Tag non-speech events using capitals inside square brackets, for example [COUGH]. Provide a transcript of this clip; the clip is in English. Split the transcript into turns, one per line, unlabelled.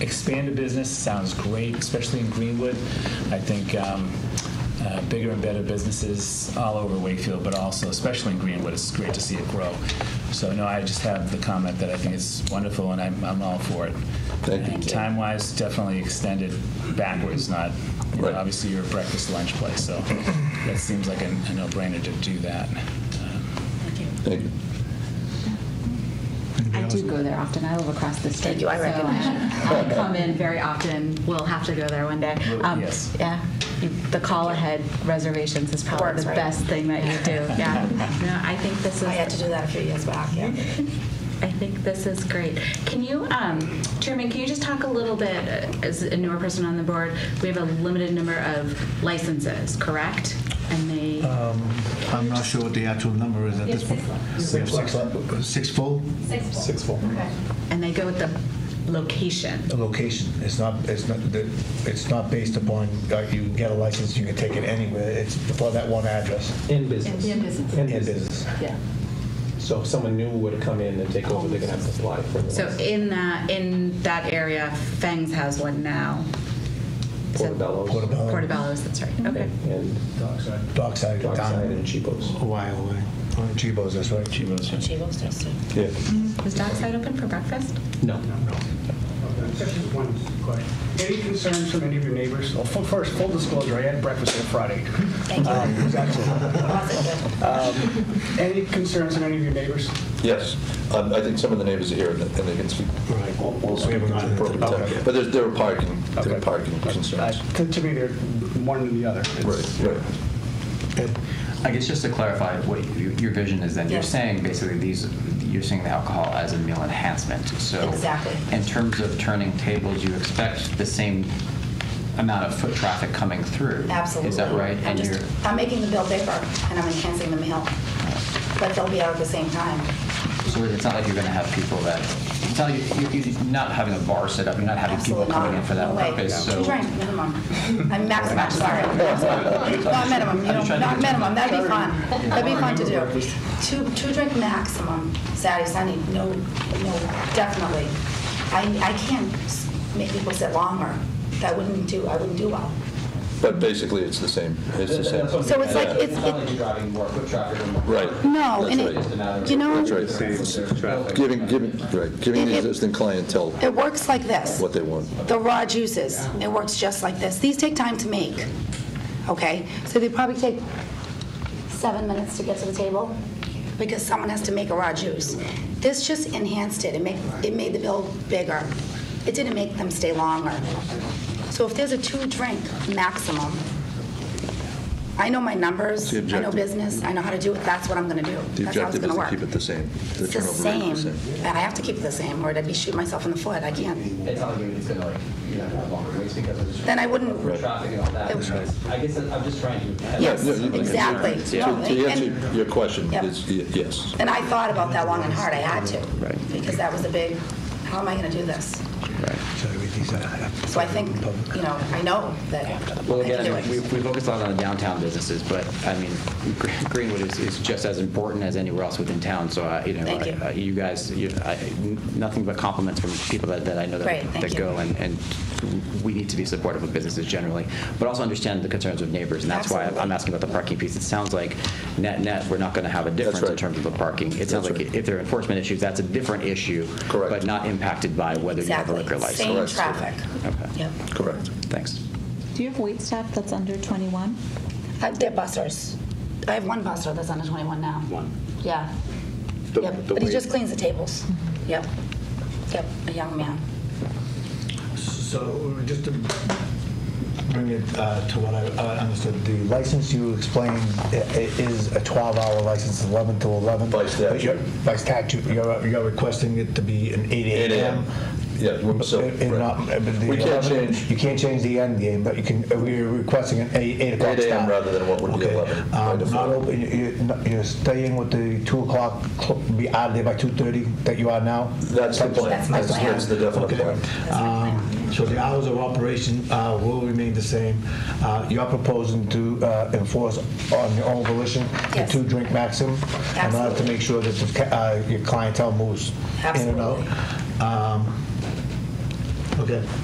expand a business sounds great, especially in Greenwood. I think um, uh, bigger and better businesses all over Wakefield, but also especially in Greenwood, it's great to see it grow. So no, I just have the comment that I think it's wonderful, and I'm, I'm all for it.
Thank you,
And
Ted.
time-wise, definitely extended backwards, not you know,
Right.
obviously you're a breakfast lunch place, so that seems like a, a no-brainer to do that. Uh,
Thank you.
I do go there often. I live across the street.
Thank you. I
so
recognize
[LAUGHS] I come in very often. We'll have to go there one day. Um,
Really? Yes.
Yeah. You- The call ahead reservations is probably
Works,
the
right?
best thing that you [LAUGHS] do. Yeah. No, I think this is.
I had to do that a few years back, yeah.
I think this is great. Can you, um, Chairman, can you just talk a little bit, uh, as a newer person on the board, we have a limited number of licenses, correct? And
Uh,
they,
I'm not sure what the actual number is at this point. We have six- Six full?
Six full.
and they go with the location.
The location, it's not, it's not, the- it's not based upon, uh, you get a license, you can take it anywhere, it's for that one address
In business.
In business.
In
in
business.
business.
Yeah.
So if someone new were to come in and take over, they're going to have to apply for
So
it.
in that, in that area, Fangs has one now. Is it-
Portobello's.
Portobello.
Portobello's, that's right, okay.
And
Dockside,
Dockside
Don,
and Chipo's.
A while away.
Chibos, that's right.
Chivas, yeah.
She loves this too.
Yeah.
Is Dockside open for breakfast?
No.
Just one question. Any concerns from any of your neighbors? Well, fu- first, full disclosure, I had breakfast on [LAUGHS] Friday.
Thank you.
Um, it was excellent.
Awesome.
Um,
Any concerns from any of your neighbors?
Yes, Um, I think some of the neighbors are here and and they can speak.
Right.
We'll- We'll
We
speak
haven't
at
gotten
the
into
appropriate
that.
time. But there's, there are parking, there are
Okay.
parking
Uh,
concerns.
To to me, they're one and the other. It's-
Right, right.
I guess just to clarify what your, your vision is then, you're
Yes.
saying basically these, you're seeing the alcohol as a meal enhancement, so.
Exactly.
In terms of turning tables, you expect the same amount of foot traffic coming through?
Absolutely.
Is that right?
I'm
And
just,
you're-
I'm making the bill bigger and I'm enhancing the meal. But they'll be out at the same time.
So it's not like you're going to have people that, it's not, like you- you- you're not having a bar set up, you're not having people
Absolutely not.
coming in for
No
that
way.
purpose, so.
Two drinks, minimum.
[LAUGHS]
I'm maximum, I'm sorry. Maximum. Not minimum, you
I'm just
know,
trying to
not
get-
minimum, that'd be fun.
[LAUGHS]
That'd be fun to do. Two, two drink maximum, Saturday, Sunday, no, no, definitely. I, I can't s- make people sit longer. That wouldn't do, I wouldn't do well.
But basically, it's the same, it's the same.
So it's like-
Yeah.
it's-
not like you're driving more foot traffic. than-
Right.
No,
That's
and
right.
Just a matter
it,
of-
you know,
That's right. Giving, giving, right, giving the
It- it-
existing clientele
it works like this.
what they want.
The raw juices, it works just like this. These take time to make, okay? So they probably take seven minutes to get to the table because someone has to make a raw juice. This just enhanced it. It made, it made the bill bigger. It didn't make them stay longer. So if there's a two-drink maximum, I know my numbers,
The
I know
objective-
business, I know how to do it, that's what I'm gonna do.
The
That's how it's
objective
gonna
is to
work.
keep it the same. The
It's the
turnover rate
same.
is the same.
I have to keep it the same, or I'd be shooting myself in the foot. I can't.
It's not like it's going to like, you know, have longer waits because of the
Then I wouldn't.
foot traffic and all that.
That's right.
I guess I'm just trying to.
Yes,
Yeah, yeah, yeah.
exactly. No,
To to answer
and-
your question,
Yep.
is y- yes.
And I thought about that long and hard. I had to. Right. Because that was a big, how am I going to do this? So I think, you know, I know that I
Well,
can do
again, we,
it.
we focus a lot on the downtown businesses, but I mean, Gre- Greenwood is, is just as important as anywhere else within town. So, I, you know,
Thank you.
I- I- you guys, you, I, nothing but compliments from people that, that I know that,
Great, thank
that
you.
go and, and we need to be supportive of businesses generally, but also understand the concerns of neighbors. And that's why I'm
Absolutely.
asking about the parking piece. It sounds like net net, we're not going to have a difference in
right.
terms of the parking. It sounds
That's
like
right.
if there are enforcement issues, that's a different issue,
Correct.
but not impacted by whether you have a
Exactly.
liquor license.
Same
Correct.
traffic.
Okay.
Yep.
Correct.
Thanks.
Do you have wait staff that's under 21?
Uh, They're busters. I have one buster that's under 21 now. One. Yeah. Yep. But he just cleans the tables. Yep. Yep, a young man.
So
Just to bring it uh, to what I uh, understood, the license you explained i- i- is a 12-hour license, 11 to 11.
By statute.
But you're- By statute, you're you're requesting it to be an 8
8 a.m.
a.m.
Yeah, we're- so,
It- it not- uh,
right.
but the
We can't
11
change.
You can't change the end game, but you can, uh, we're requesting an 8 eight o'clock
8
start.
a.m. rather than what would be
Okay.
11 by
Um, Not
default.
open, you- you're not- you're staying with the 2 o'clock, cl- be out of there by 2:30 that you are now?
That's the plan.
That's my plan.
That's the definite
Okay.
plan.
Um, So the hours of operation uh, will remain the same. Uh, You're proposing to uh, enforce on your own volition the
Yes.
two-drink maximum? In order to
Absolutely.
make sure that the ca- uh, your clientele moves in and out?
Absolutely.
Um, Okay.